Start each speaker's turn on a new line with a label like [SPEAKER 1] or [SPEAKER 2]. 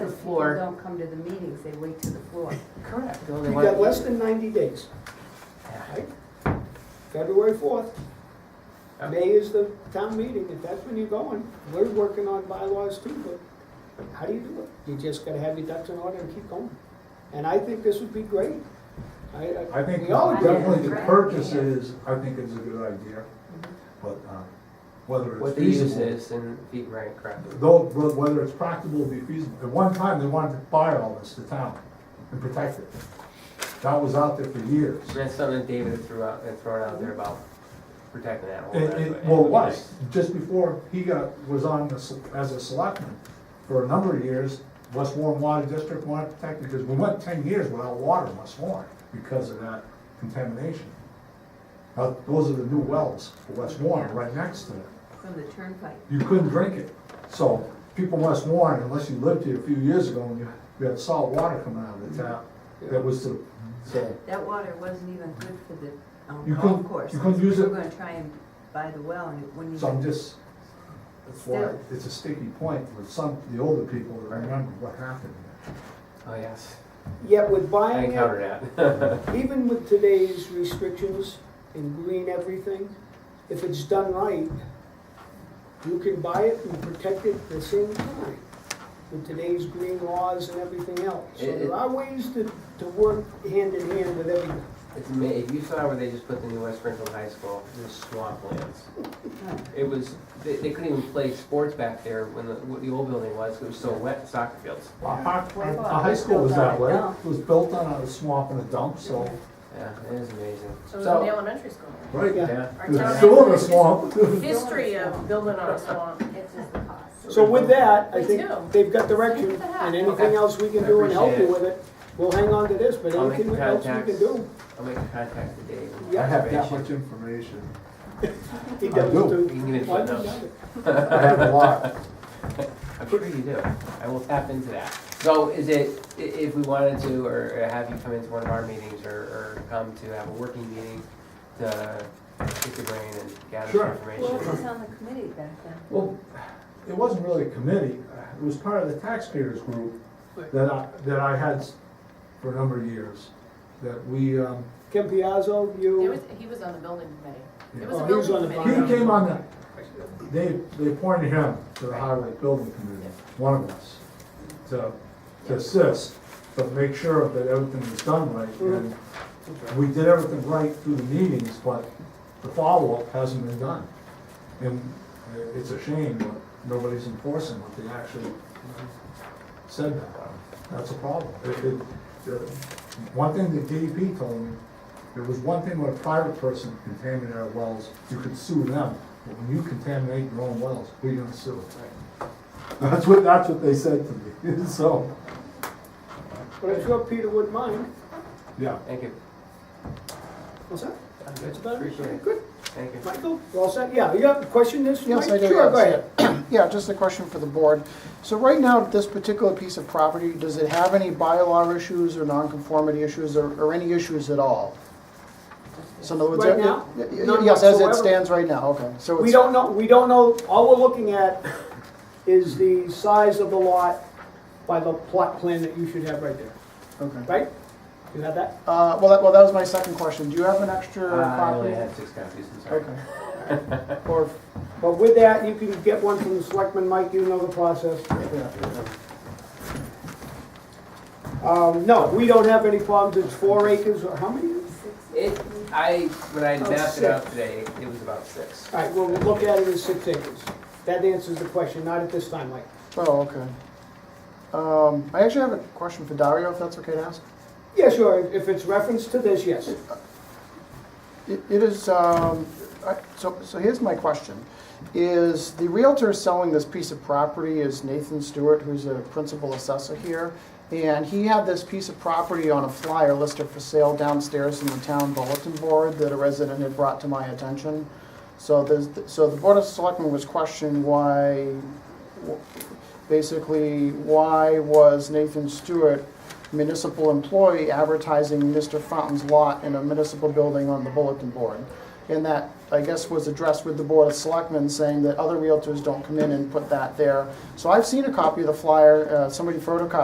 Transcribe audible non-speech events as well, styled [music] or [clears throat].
[SPEAKER 1] floor.
[SPEAKER 2] People don't come to the meetings, they wait to the floor.
[SPEAKER 1] Correct.
[SPEAKER 3] You've got less than ninety days. right? February fourth, May is the town meeting, if that's when you're going, we're working on bylaws too, but how do you do it? You just gotta have your ducks in order and keep going. And I think this would be great. I,
[SPEAKER 4] I
[SPEAKER 3] I,
[SPEAKER 4] think
[SPEAKER 3] we all do.
[SPEAKER 4] definitely the purchases, I think it's a good idea, but um, whether it's
[SPEAKER 1] What the use
[SPEAKER 4] feasible.
[SPEAKER 1] is and feet right correct.
[SPEAKER 4] Though, but whether it's practicable, be feasible. At one time, they wanted to buy all this to town and protect it. That was out there for years.
[SPEAKER 1] And that's something that David threw out, had thrown out there about protecting animals.
[SPEAKER 4] It,
[SPEAKER 1] that's what-
[SPEAKER 4] it, well, it was, just before he got, was on the s- as a selectman, for a number of years, West Warren Water District wanted to protect, because we went ten years without water in West Warren because of that contamination. Uh, those are the new wells for West Warren, right next to it,
[SPEAKER 2] From the turnpike.
[SPEAKER 4] you couldn't drink it. So, people in West Warren, unless you lived here a few years ago, and you, you had salt water coming out of the tap, that was the, so,
[SPEAKER 2] That water wasn't even good for the um,
[SPEAKER 4] You
[SPEAKER 2] golf
[SPEAKER 4] couldn't-
[SPEAKER 2] course.
[SPEAKER 4] you couldn't use
[SPEAKER 2] We
[SPEAKER 4] it-
[SPEAKER 2] were gonna try and buy the well and it wouldn't
[SPEAKER 4] so I'm
[SPEAKER 2] even,
[SPEAKER 4] just, that's why, it's a sticky point with some, the older people that remember what happened here.
[SPEAKER 1] Oh, yes,
[SPEAKER 3] Yet with
[SPEAKER 1] I
[SPEAKER 3] buying it,
[SPEAKER 1] encountered that. [laughs]
[SPEAKER 3] even with today's restrictions and green everything, if it's done right, you can buy it and protect it at the same time with today's green laws and everything else. So
[SPEAKER 1] It- it-
[SPEAKER 3] there are ways to, to work hand in hand with everything.
[SPEAKER 1] It's ama, if you saw where they just put the new West Springfield High School, there's swamplands. It was, they, they couldn't even play sports back there when the, what the old building was, 'cause it was so wet, soccer fields.
[SPEAKER 4] Our,
[SPEAKER 2] Well,
[SPEAKER 4] our-
[SPEAKER 2] well,
[SPEAKER 4] our high
[SPEAKER 2] it's
[SPEAKER 4] school was
[SPEAKER 2] built on
[SPEAKER 4] that
[SPEAKER 2] a
[SPEAKER 4] way,
[SPEAKER 2] dump.
[SPEAKER 4] it was built on a swamp and a dump, so.
[SPEAKER 1] Yeah, it is amazing.
[SPEAKER 5] So it was in the elementary school.
[SPEAKER 4] Right,
[SPEAKER 3] Yeah.
[SPEAKER 1] Yeah.
[SPEAKER 5] Our
[SPEAKER 4] It was
[SPEAKER 5] town
[SPEAKER 4] still in a
[SPEAKER 5] has
[SPEAKER 4] swamp. [laughs]
[SPEAKER 5] History of building on a swamp.
[SPEAKER 2] it's just the cost.
[SPEAKER 3] So with that, I
[SPEAKER 5] Me
[SPEAKER 3] think
[SPEAKER 5] too.
[SPEAKER 3] they've got direction and anything
[SPEAKER 1] Okay.
[SPEAKER 3] else we can
[SPEAKER 1] I
[SPEAKER 3] do and help you
[SPEAKER 1] appreciate
[SPEAKER 3] with it, we'll hang on to this, but
[SPEAKER 1] I'll make
[SPEAKER 3] anything
[SPEAKER 1] the
[SPEAKER 3] else we can
[SPEAKER 1] contacts.
[SPEAKER 3] do,
[SPEAKER 1] I'll make contact with Dave. and
[SPEAKER 3] Yeah,
[SPEAKER 4] I have that
[SPEAKER 1] information.
[SPEAKER 4] much information.
[SPEAKER 3] he
[SPEAKER 4] I
[SPEAKER 3] does
[SPEAKER 4] do.
[SPEAKER 3] too.
[SPEAKER 1] You can get
[SPEAKER 3] Why
[SPEAKER 1] it
[SPEAKER 3] do you
[SPEAKER 1] done.
[SPEAKER 3] have it?
[SPEAKER 4] [laughs] I have a lot.
[SPEAKER 1] I'm sure you do. I will tap into that. So is it, i- if we wanted to, or or have you come into one of our meetings, or, or come to have a working meeting to pick your brain and gather
[SPEAKER 4] Sure.
[SPEAKER 1] some
[SPEAKER 2] Well, it
[SPEAKER 1] information?
[SPEAKER 2] was on the committee back then.
[SPEAKER 4] Well, it wasn't really a committee, it was part of the taxpayers group that I, that I had s- for a number of years. That we, um,
[SPEAKER 3] Kim Piazza,
[SPEAKER 5] It
[SPEAKER 3] you,
[SPEAKER 5] was, he was on the building committee. It was
[SPEAKER 3] Oh,
[SPEAKER 5] a
[SPEAKER 3] he was on
[SPEAKER 5] building
[SPEAKER 3] the
[SPEAKER 4] he
[SPEAKER 3] fire.
[SPEAKER 5] committee.
[SPEAKER 4] came on the, they, they appointed him to the highway building committee, one of us, to, to assist, but make sure that everything was done right. And We did everything right through the meetings, but the follow-up hasn't been done. And uh, it's a shame, but nobody's enforcing what they actually said that. That's a problem. It, it, the- one thing that DEP told me, there was one thing when a private person contaminated our wells, you could sue them. But when you contaminate your own wells, who are you gonna sue? [laughs] That's what, that's what they said to me, [laughs] so,
[SPEAKER 3] but I'm sure Peter wouldn't mind.
[SPEAKER 4] yeah.
[SPEAKER 1] Thank you.
[SPEAKER 3] What's that?
[SPEAKER 1] I'm good.
[SPEAKER 3] That's about it?
[SPEAKER 1] Appreciate it.
[SPEAKER 3] Good.
[SPEAKER 1] Thank you.
[SPEAKER 3] Michael, you all set? Yeah, you have a question this, Mike?
[SPEAKER 6] Yes, I do.
[SPEAKER 3] Sure, go ahead.
[SPEAKER 6] [clears throat] Yeah, just a question for the board. So right now, this particular piece of property, does it have any bylaw issues or nonconformity issues or, or any issues at all? So in other words,
[SPEAKER 3] Right
[SPEAKER 6] it-
[SPEAKER 3] now?
[SPEAKER 6] y- y-
[SPEAKER 3] None
[SPEAKER 6] Yes, as
[SPEAKER 3] whatsoever.
[SPEAKER 6] it stands right now, okay. So
[SPEAKER 3] We
[SPEAKER 6] it's-
[SPEAKER 3] don't know, we don't know, all we're looking at is the size of the lot by the plot plan that you should have right there,
[SPEAKER 6] okay.
[SPEAKER 3] right? You have that?
[SPEAKER 6] Uh, well, that, well, that was my second question. Do you have an extra
[SPEAKER 1] Uh, I only
[SPEAKER 6] copy?
[SPEAKER 1] had six copies, I'm sorry.
[SPEAKER 6] Okay. Or,
[SPEAKER 3] But with that, you can get one from the selectman, Mike, you know the process.
[SPEAKER 6] yeah.
[SPEAKER 3] Um, no, we don't have any problems, it's four acres, or how many?
[SPEAKER 1] It, I, when I
[SPEAKER 3] Oh,
[SPEAKER 1] mapped it out
[SPEAKER 3] six.
[SPEAKER 1] today, it was about six.
[SPEAKER 3] All right, well, we'll look at it as six acres. That answers the question, not at this time, Mike.
[SPEAKER 6] Oh, okay. Um, I actually have a question for Dario, if that's okay to ask.
[SPEAKER 3] Yeah, sure, if it's reference to this, yes.
[SPEAKER 6] It it is, um, I- so, so here's my question. Is the realtor selling this piece of property is Nathan Stewart, who's a principal assessor here. And he had this piece of property on a flyer listed for sale downstairs in the town bulletin board that a resident had brought to my attention. So there's, so the Board of Selectmen was questioning why, basically, why was Nathan Stewart municipal employee advertising Mr. Fountain's lot in a municipal building on the bulletin board. And that, I guess, was addressed with the Board of Selectmen, saying that other realtors don't come in and put that there. So I've seen a copy of the flyer, uh, somebody photocopied